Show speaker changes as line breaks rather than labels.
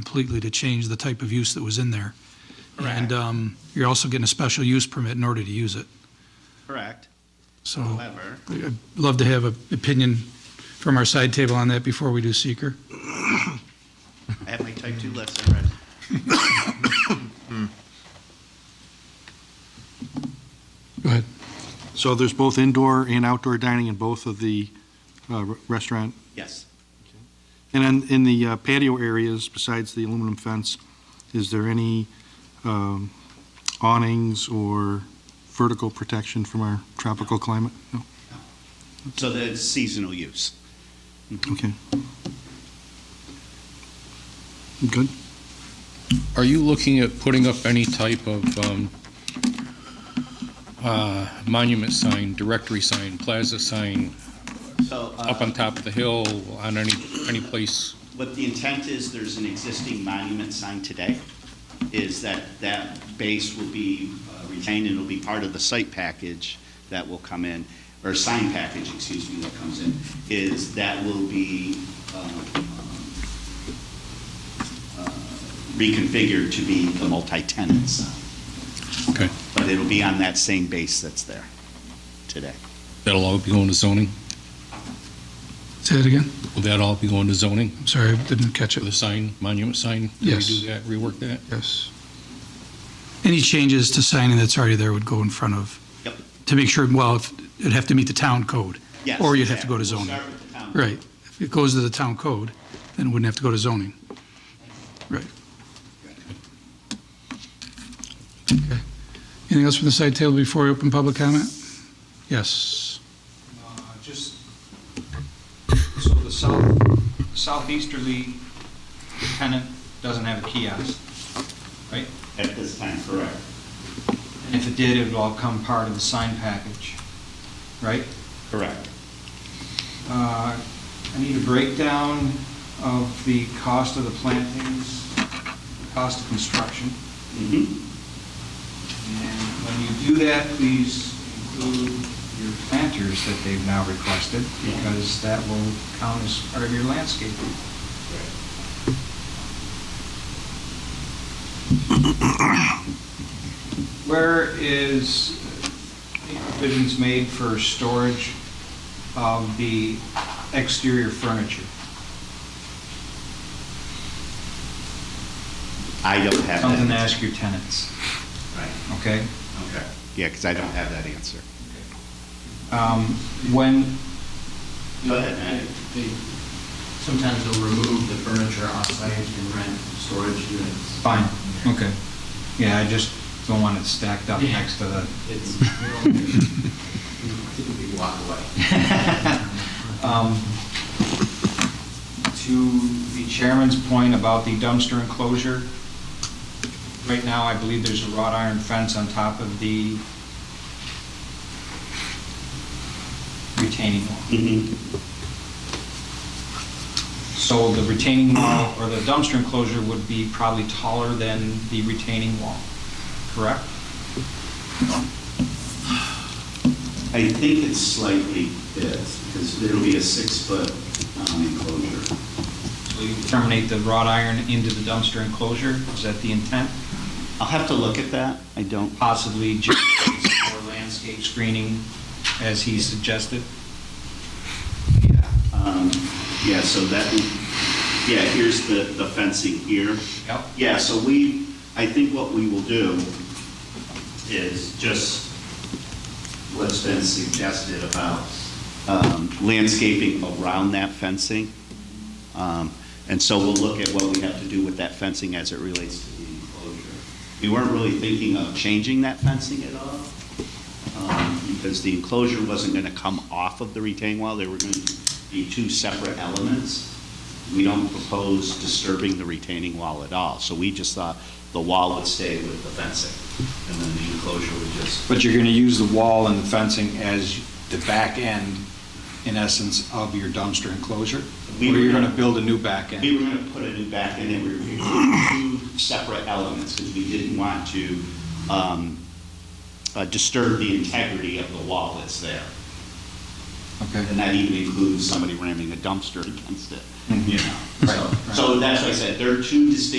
completely to change the type of use that was in there. And um, you're also getting a special use permit in order to use it.
Correct.
So
However,
I'd love to have an opinion from our side table on that before we do seeker.
I have my type two list, I'm ready.
Go ahead.
So there's both indoor and outdoor dining in both of the uh, re- restaurant.
Yes,
And in, in the uh, patio areas, besides the aluminum fence, is there any um, awnings or vertical protection from our tropical climate? No?
so that's seasonal use.
Okay. Good.
Are you looking at putting up any type of um, uh, monument sign, directory sign, plaza sign,
So uh,
up on top of the hill, on any, any place?
what the intent is, there's an existing monument sign today, is that that base will be uh, retained and will be part of the site package that will come in, or sign package, excuse me, that comes in, is that will be um, uh, reconfigured to be the multi-tenant sign.
Okay,
But it'll be on that same base that's there today.
that'll all be going to zoning?
Say that again?
Will that all be going to zoning
I'm sorry, I didn't catch
for the
it.
sign, monument sign?
Yes.
Redo that, rework that?
Yes. Any changes to signing that's already there would go in front of,
Yep.
to make sure, well, if- it'd have to meet the town code.
Yes,
Or you'd have to go to
exactly.
zoning.
We'll start with the town.
Right. If it goes to the town code, then it wouldn't have to go to zoning. Right. Okay. Anything else from the side table before we open public comment? Yes.
Uh, Just, so the south southeasterly tenant doesn't have a kiosk, right?
At this time, correct.
And if it did, it would all come part of the sign package, right?
Correct.
Uh, I need a breakdown of the cost of the plantings, cost of construction.
Mhm.
And when you do that, please include your planters that they've now requested, because that will count as part of your landscaping. Where is any provisions made for storage of the exterior furniture?
I don't have that.
Something to ask your tenants,
Right,
okay?
okay. Yeah, because I don't have that answer.
Um, When,
Go ahead, Matt.
They, sometimes they'll remove the furniture off-site and rent storage units.
Fine, okay. Yeah, I just don't want it stacked up next to the,
It's, we don't- we typically walk away.
um, to the chairman's point about the dumpster enclosure, right now, I believe there's a wrought iron fence on top of the retaining wall.
Mhm.
So the retaining wall, or the dumpster enclosure would be probably taller than the retaining wall, correct?
I think it's slightly this, because it'll be a six-foot um, enclosure.
So you terminate the wrought iron into the dumpster enclosure, is that the intent?
I'll have to look at that. I don't.
possibly just more landscape screening as he suggested?
um, Yeah, so that, yeah, here's the the fencing here.
Yep.
Yeah, so we, I think what we will do is just what's been suggested about um, landscaping around that fencing. Um, And so we'll look at what we have to do with that fencing as it relates to the enclosure. We weren't really thinking of changing that fencing at all, um, because the enclosure wasn't going to come off of the retaining wall. There were going to be two separate elements. We don't propose disturbing the retaining wall at all, so we just thought the wall would stay with the fencing, and then the enclosure would just,
But you're going to use the wall and the fencing as the back end, in essence, of your dumpster enclosure? Or
We were
you're going to
gonna-
build a new back end?
we were going to put a new back in, and we were going to two separate elements, because we didn't want to um, uh, disturb the integrity of the wall that's there.
Okay.
And that even includes somebody ramming a dumpster against it, you know?
Right,
So- So that's why I said, there are two distinct